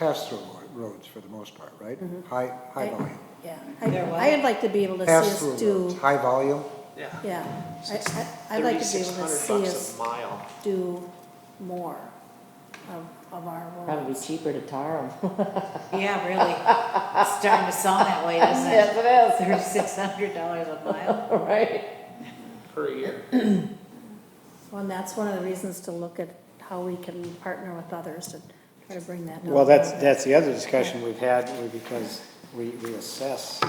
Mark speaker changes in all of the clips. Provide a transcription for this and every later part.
Speaker 1: pass-through roads for the most part, right? High, high volume.
Speaker 2: Yeah,
Speaker 3: They're what?
Speaker 2: I, I'd like to be able to see
Speaker 1: Pass-through
Speaker 2: us
Speaker 1: roads,
Speaker 2: do,
Speaker 1: high volume,
Speaker 4: Yeah.
Speaker 2: yeah, I, I, I'd like to be able to see
Speaker 4: 3,600 bucks
Speaker 2: us
Speaker 4: a mile.
Speaker 2: do more of, of our
Speaker 5: Probably
Speaker 2: roads.
Speaker 5: cheaper to tar them.
Speaker 3: Yeah, really. It's starting to sound that way, doesn't it?
Speaker 5: Yes, it
Speaker 3: Thirty-six hundred dollars a mile.
Speaker 5: is. Right.
Speaker 4: Per year.
Speaker 2: Well, and that's one of the reasons to look at how we can partner with others to try to bring that down.
Speaker 1: Well, that's, that's the other discussion we've had, we- because we, we assess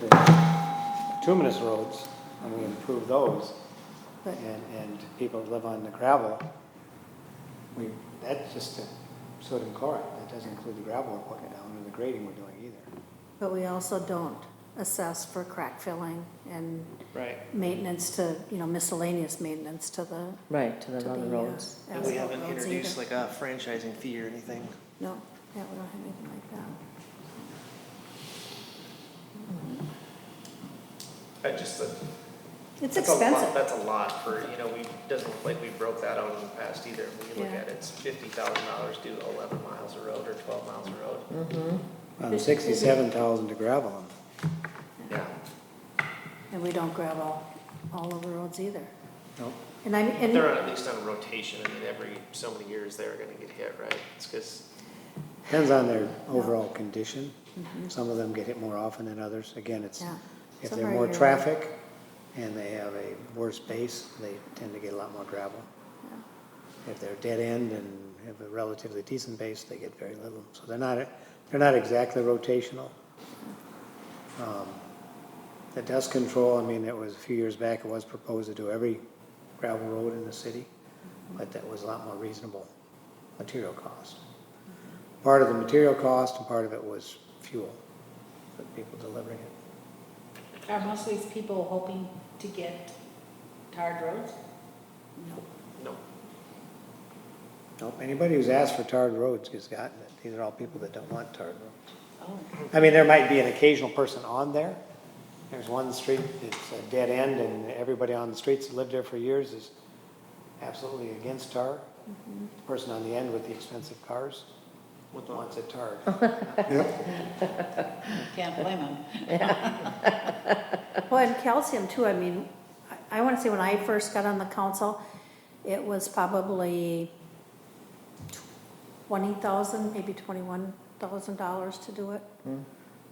Speaker 1: the bituminous roads, and we improve those,
Speaker 2: But-
Speaker 1: and, and people that live on the gravel, we, that's just the sodium chloride, that doesn't include the gravel we're putting down, or the grading we're doing either.
Speaker 2: But we also don't assess for crack filling and
Speaker 4: Right.
Speaker 2: maintenance to, you know, miscellaneous maintenance to the,
Speaker 5: Right, to
Speaker 2: to
Speaker 5: the
Speaker 2: the.
Speaker 5: other
Speaker 2: uh,
Speaker 5: roads.
Speaker 4: And we
Speaker 2: asphalt
Speaker 4: haven't
Speaker 2: roads
Speaker 4: introduced
Speaker 2: either.
Speaker 4: like a franchising fee or anything.
Speaker 2: No, yeah, we don't have anything like that.
Speaker 6: I just, that-
Speaker 2: It's
Speaker 6: that's a lot,
Speaker 2: expensive.
Speaker 6: that's a lot for, you know, we, doesn't look like we broke that out in the past either. When you look
Speaker 2: Yeah.
Speaker 6: at it, it's fifty thousand dollars to eleven miles of road or twelve miles of road.
Speaker 1: Um, sixty-seven thousand to gravel,
Speaker 2: Mm-hmm.
Speaker 6: Yeah.
Speaker 2: And we don't grab all, all of the roads either.
Speaker 1: no,
Speaker 2: And I, and,
Speaker 6: They're on, at least on a rotation, I mean, every so many years they're gonna get hit, right? It's because
Speaker 1: depends on their overall condition, some of them get hit more often than others, again, it's,
Speaker 2: Mm-hmm. yeah.
Speaker 1: if
Speaker 2: Some
Speaker 1: they're
Speaker 2: are
Speaker 1: more
Speaker 2: yearly.
Speaker 1: traffic, and they have a worse base, they tend to get a lot more gravel.
Speaker 2: Yeah.
Speaker 1: If they're dead end and have a relatively decent base, they get very little. So they're not, they're not exactly rotational. Um, The dust control, I mean, it was a few years back, it was proposed to do every gravel road in the city, but that was a lot more reasonable material cost. Part of the material cost and part of it was fuel, for the people delivering it.
Speaker 3: Are most of these people hoping to get tarred roads?
Speaker 6: No,
Speaker 1: Nope, anybody who's asked for tarred roads has gotten it. These are all people that don't want tarred roads.
Speaker 3: Oh,
Speaker 1: I mean, there might be an occasional person on there. There's one street, it's a dead end, and everybody on the streets that lived there for years is absolutely against tar. The Person on the end with the expensive cars wants it tarred.
Speaker 3: can't blame them.
Speaker 2: Well, and calcium too, I mean, I, I wanna say when I first got on the council, it was probably twenty thousand, maybe twenty-one thousand dollars to do it.
Speaker 7: Hmm.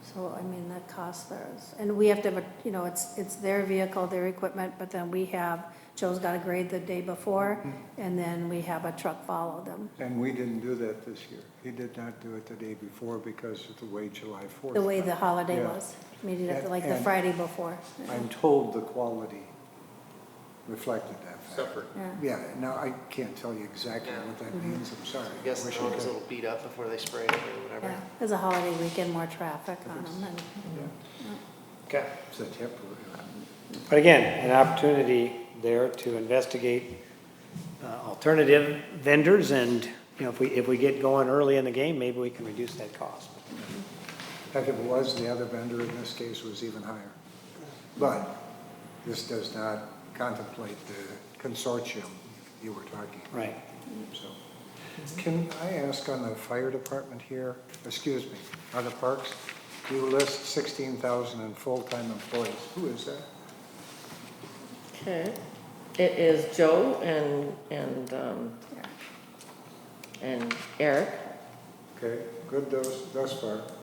Speaker 2: So, I mean, the cost there is, and we have to have, a you know, it's, it's their vehicle, their equipment, but then we have, Joe's got a grade the day before,
Speaker 7: Hmm.
Speaker 2: and then we have a truck follow them.
Speaker 7: And we didn't do that this year. He did not do it the day before because of the way July 4th.
Speaker 2: The way the
Speaker 7: went.
Speaker 2: holiday
Speaker 7: Yeah.
Speaker 2: was, maybe like the
Speaker 7: And-
Speaker 2: Friday before.
Speaker 7: I'm told the quality reflected that fact.
Speaker 6: suffer.
Speaker 2: Yeah.
Speaker 7: Yeah, now I can't tell you exactly what that means, I'm sorry.
Speaker 6: I guess the
Speaker 7: Wish I
Speaker 6: road is a
Speaker 7: could.
Speaker 6: little beat up before they spray it or whatever.
Speaker 2: Yeah, it was a holiday weekend, more traffic on them, and
Speaker 6: Okay.
Speaker 7: It's a tip, uh,
Speaker 1: But again, an opportunity there to investigate uh, alternative vendors, and, you know, if we, if we get going early in the game, maybe we can reduce that cost.
Speaker 7: Heck, if it was, the other vendor in this case was even higher. But this does not contemplate the consortium you were talking about.
Speaker 1: Right.
Speaker 7: So, can I ask on the fire department here, excuse me, on the parks, you list sixteen thousand in full-time employees. Who is that?
Speaker 5: Okay. It is Joe and, and, um, and Eric.
Speaker 7: Okay, good thus, thus far.